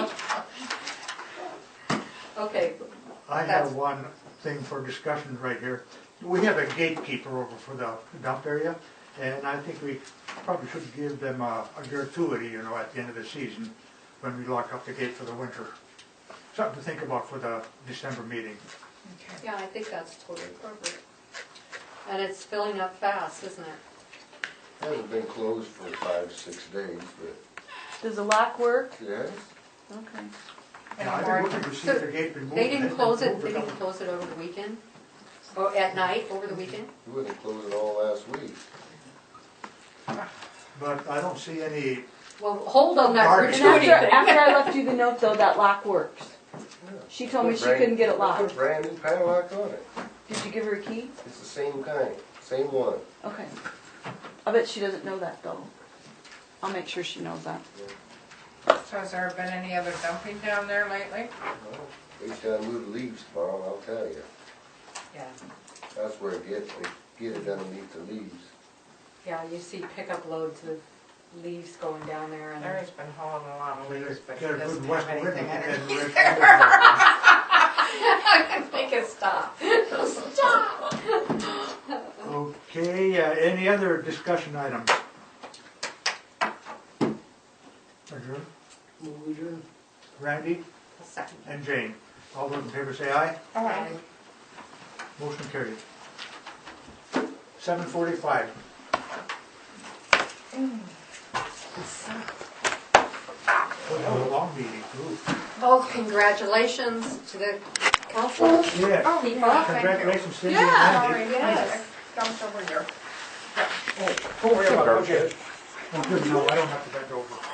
Okay, I That's- have one thing for discussion right here. We have a gatekeeper over for the dump area, and I think we probably should give them a a gratuity, you know, at the end of the season, when we lock up the gate for the winter. Something to think about for the December meeting. yeah, I think that's totally appropriate. And it's filling up fast, isn't it? Hasn't been closed for five, six days, but Does the lock work? yes. Okay. And I think we could see the gate removed. They didn't and close it, moved a they didn't couple- close it over the weekend? Or at night, over the weekend? You wouldn't close it all last week. But I don't see any, Well, hold on that Garbage. And gratuity after, thing. after I left you the note though, that lock works. Yeah. She told me Put she brand- couldn't get it Put locked. brand new padlock on it. Did you give her a key? It's the same kind, same one. Okay. I bet she doesn't know that though. I'll make sure she knows that. So has there been any other dumping down there lately? Well, Each time I move the leaves tomorrow, I'll tell you. Yeah, That's where it gets, they get it underneath the leaves. yeah, you see pickup loads of leaves going down there and. Larry's been hauling a lot of leaves, but he get a good doesn't west have wind. anything in it. and we're- I can make it stop. Stop! Okay, uh, any other discussion items? Adjourn? Randy A second. and Jane, all those in favor say aye. All right. Motion carried. Seven forty-five. a long meeting, too. Oh, congratulations to the council. Yeah, Oh, Keep yeah, up. thank you. congratulations, Cindy and Yeah, all Randy. right, Yes. yes. Dumped over here. Oh, yeah, okay. Well, good, no, I don't have to bend over.